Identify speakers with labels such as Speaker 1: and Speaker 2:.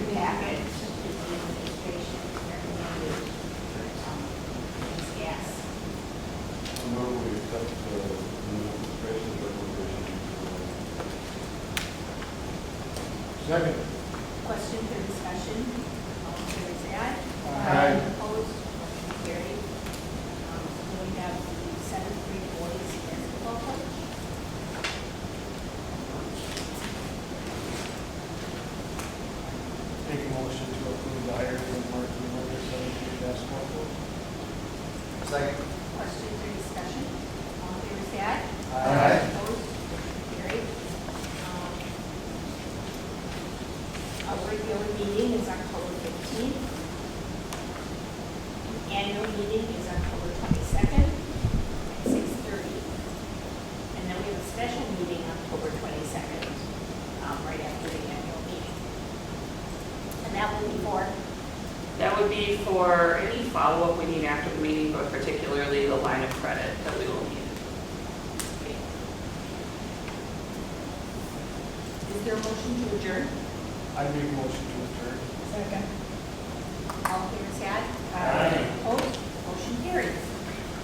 Speaker 1: Second.
Speaker 2: Question for discussion? All in favor, say aye.
Speaker 1: Aye.
Speaker 2: Opposed, motion carried. Um, We have the seventh grade boys basketball coach.
Speaker 1: Take a motion to approve the hiring of Mark Miller, seventeen basketball coach.
Speaker 3: Second.
Speaker 2: Question for discussion? All in favor, say aye.
Speaker 3: Aye.
Speaker 2: Opposed, motion carried. Um, Our regular meeting is October fifteenth. Annual meeting is October twenty-second at six thirty. And then we have a special meeting October twenty-second, um, right after the annual meeting. And that will be for,
Speaker 4: That would be for any follow-up we need after the meeting, but particularly the line of credit that we will need.
Speaker 2: is there a motion to adjourn?
Speaker 1: I make a motion to adjourn.